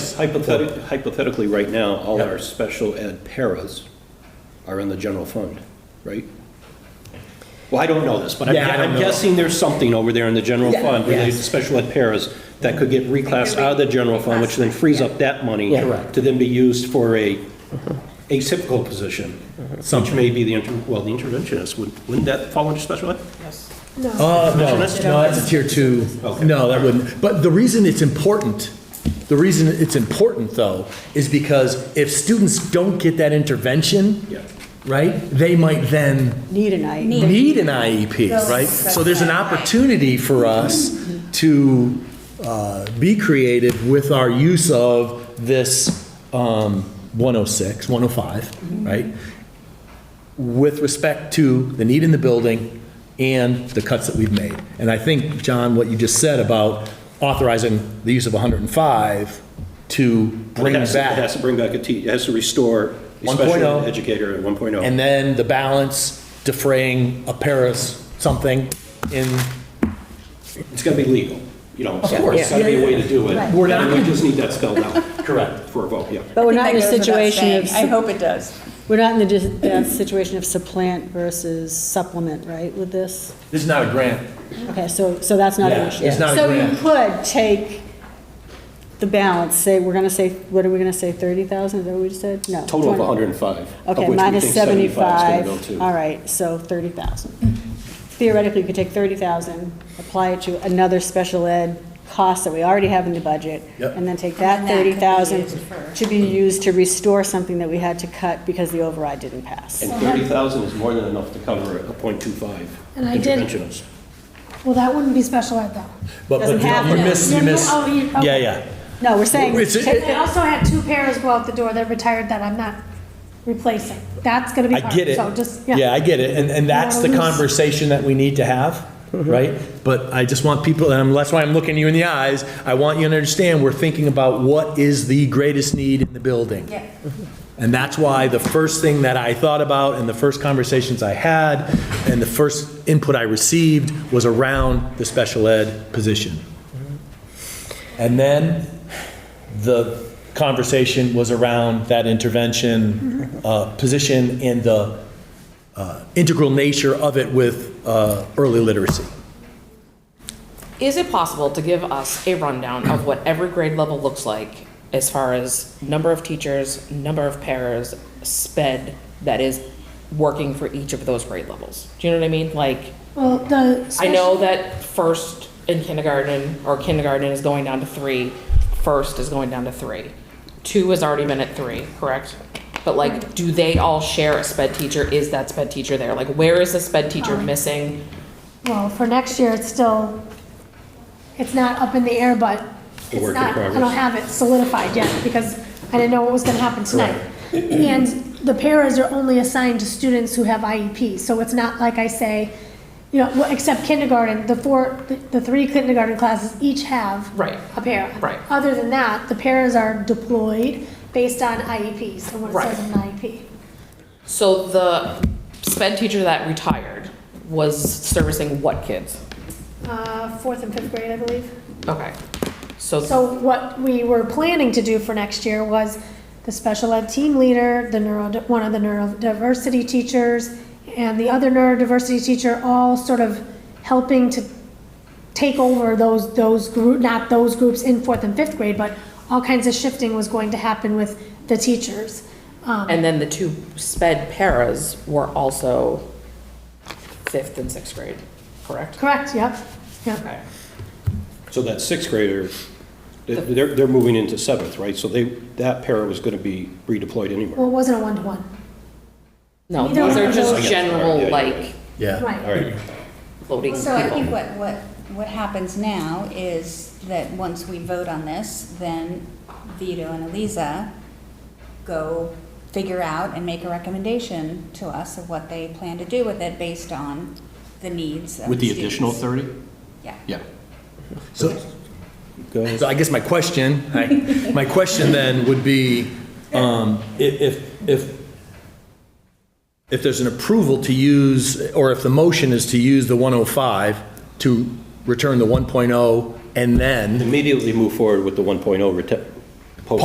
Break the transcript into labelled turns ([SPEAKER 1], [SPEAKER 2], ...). [SPEAKER 1] Hypothetically, hypothetically, right now, all
[SPEAKER 2] Yeah.
[SPEAKER 1] our special ed paras are in the general fund, right? Well, I don't know this, but I'm-
[SPEAKER 2] Yeah, I don't
[SPEAKER 1] I'm
[SPEAKER 2] know.
[SPEAKER 1] guessing there's something over there in the general
[SPEAKER 2] Yeah.
[SPEAKER 1] fund related to
[SPEAKER 2] Yes.
[SPEAKER 1] special ed paras that could get reclassed out of the general fund, which then frees up that money
[SPEAKER 2] Yeah. Correct. Uh-huh.
[SPEAKER 1] to then be used for a atypical position, which
[SPEAKER 2] Something.
[SPEAKER 1] may be the, inter- well, the interventionist, Would- wouldn't that fall under special ed?
[SPEAKER 2] Uh, no, no, that's a tier two.
[SPEAKER 1] Okay.
[SPEAKER 2] No, that wouldn't. But the reason it's important, the reason it's important though, is because if students don't get that intervention,
[SPEAKER 1] Yeah.
[SPEAKER 2] right, they might then
[SPEAKER 3] Need an eye.
[SPEAKER 2] need an IEP, right? So there's an opportunity for us to uh, be creative with our use of this um, 106, 105, right? With respect to the need in the building and the cuts that we've made. And I think, John, what you just said about authorizing the use of 105 to bring
[SPEAKER 1] It has to- It has
[SPEAKER 2] back,
[SPEAKER 1] to bring back a te, it has to restore a special
[SPEAKER 2] 1.0.
[SPEAKER 1] ed educator at oh. 1.0.
[SPEAKER 2] and then the balance defraying a Paris something in
[SPEAKER 1] It's gotta be legal, you know, so
[SPEAKER 2] course.
[SPEAKER 1] it's gotta be a way to do it.
[SPEAKER 2] We're not-
[SPEAKER 1] And We just need that spelled out. Correct. For a vote, yeah.
[SPEAKER 3] But we're
[SPEAKER 4] I
[SPEAKER 3] not in
[SPEAKER 4] think that
[SPEAKER 3] a
[SPEAKER 4] goes without
[SPEAKER 3] situation of,
[SPEAKER 4] saying. I
[SPEAKER 3] sup-
[SPEAKER 4] hope it does.
[SPEAKER 3] we're not in the dis- that situation of supplant versus supplement, right, with this?
[SPEAKER 2] This is not a grant.
[SPEAKER 3] Okay, so, so that's not an
[SPEAKER 2] Yeah,
[SPEAKER 3] issue.
[SPEAKER 2] it's not a grant.
[SPEAKER 3] So you could take the balance, say, we're gonna say, what are we gonna say, thirty thousand, is that what we just said? No.
[SPEAKER 1] Total of
[SPEAKER 3] 20.
[SPEAKER 1] 105. of
[SPEAKER 3] Okay,
[SPEAKER 1] which we
[SPEAKER 3] minus
[SPEAKER 1] think 75 is gonna go
[SPEAKER 3] seventy-five,
[SPEAKER 1] to-
[SPEAKER 3] all right, so thirty thousand. Theoretically, you could take thirty thousand, apply it to another special ed cost that we already have in the budget,
[SPEAKER 2] Yep.
[SPEAKER 3] and then take
[SPEAKER 4] And then
[SPEAKER 3] that
[SPEAKER 4] that could be
[SPEAKER 3] thirty thousand
[SPEAKER 4] used for-
[SPEAKER 3] to be used to restore something that we had to cut because the override didn't pass.
[SPEAKER 1] And 30,000 is more than enough to cover a .25
[SPEAKER 5] And I did-
[SPEAKER 1] interventionist.
[SPEAKER 5] Well, that wouldn't be special ed though.
[SPEAKER 2] But,
[SPEAKER 3] Doesn't
[SPEAKER 2] but you-
[SPEAKER 3] have
[SPEAKER 2] you
[SPEAKER 3] to.
[SPEAKER 2] miss, you
[SPEAKER 5] No, no,
[SPEAKER 2] miss.
[SPEAKER 5] oh, you- okay.
[SPEAKER 2] Yeah, yeah.
[SPEAKER 3] No, we're saying,
[SPEAKER 2] It's-
[SPEAKER 3] take
[SPEAKER 5] I
[SPEAKER 3] the-
[SPEAKER 5] also had two pairs go out the door that retired that I'm not replacing. That's gonna be
[SPEAKER 2] I
[SPEAKER 5] hard.
[SPEAKER 2] get it.
[SPEAKER 5] So just,
[SPEAKER 2] Yeah, I get it. And, and that's the
[SPEAKER 5] Yeah.
[SPEAKER 2] conversation that we need to have, right? But I just want people, and I'm- that's why I'm looking you in the eyes. I want you to understand, we're thinking about what is the greatest need in the building.
[SPEAKER 4] Yeah.
[SPEAKER 2] And that's why the first thing that I thought about and the first conversations I had and the first input I received was around the special ed position. And then the conversation was around that intervention uh, position and the uh, integral nature of it with uh, early literacy.
[SPEAKER 6] Is it possible to give us a rundown of what every grade level looks like as far as number of teachers, number of pairs, sped that is working for each of those grade levels? Do you know what I mean? Like,
[SPEAKER 5] Well, the.
[SPEAKER 6] I know that first in kindergarten, or kindergarten is going down to three, first is going down to three. Two has already been at three, correct? But like, do they all share a sped teacher? Is that sped teacher there? Like, where is the sped teacher missing?
[SPEAKER 5] Well, for next year, it's still, it's not up in the air, but
[SPEAKER 1] A
[SPEAKER 5] it's
[SPEAKER 1] work in
[SPEAKER 5] not, I don't
[SPEAKER 1] progress.
[SPEAKER 5] have it solidified yet because I didn't know what was gonna happen tonight. And the paras are only assigned to students who have IEPs, so it's not like I say, you know, well, except kindergarten, the four, the- the three kindergarten classes each have
[SPEAKER 6] Right.
[SPEAKER 5] a para.
[SPEAKER 6] Right.
[SPEAKER 5] Other than that, the paras are deployed based on IEPs and what it
[SPEAKER 6] Right.
[SPEAKER 5] says in E an IEP.
[SPEAKER 6] So the sped teacher that retired was servicing what kids?
[SPEAKER 5] Uh, fourth and fifth grade, I believe.
[SPEAKER 6] Okay, so,
[SPEAKER 5] So what we were planning to do for next year was the special ed team leader, the neuro, one of the neurodiversity teachers, and the other neurodiversity teacher, all sort of helping to take over those, those group, not those groups in fourth and fifth grade, but all kinds of shifting was going to happen with the teachers.
[SPEAKER 4] um,
[SPEAKER 6] and then the two sped paras were also fifth and sixth grade, correct?
[SPEAKER 5] Correct, yep, yep.
[SPEAKER 6] Okay.
[SPEAKER 1] So that sixth grader, they- they're, they're moving into seventh, right? So they, that para was going to be redeployed
[SPEAKER 5] Well,
[SPEAKER 1] anywhere.
[SPEAKER 5] it wasn't a one-to-one,
[SPEAKER 6] No,
[SPEAKER 5] Neither
[SPEAKER 6] those
[SPEAKER 5] one
[SPEAKER 6] are
[SPEAKER 5] of
[SPEAKER 6] just
[SPEAKER 5] those-
[SPEAKER 6] general, like,
[SPEAKER 2] Yeah.
[SPEAKER 1] All
[SPEAKER 5] right.
[SPEAKER 1] right.
[SPEAKER 6] floating
[SPEAKER 4] So I think
[SPEAKER 6] people.
[SPEAKER 4] what, what, what happens now is that once we vote on this, then Vito and Eliza go figure out and make a recommendation to us of what they plan to do with it based on the needs of
[SPEAKER 1] With the
[SPEAKER 4] students.
[SPEAKER 1] additional 30?
[SPEAKER 4] Yeah.
[SPEAKER 1] Yeah.
[SPEAKER 2] So,
[SPEAKER 1] Go ahead.
[SPEAKER 2] So I guess my question, I- my question then would be, um, i- if, if, if there's an approval to use, or if the motion is to use the 105 to return the 1.0 and then,
[SPEAKER 1] Immediately move forward with the 1.0 rete-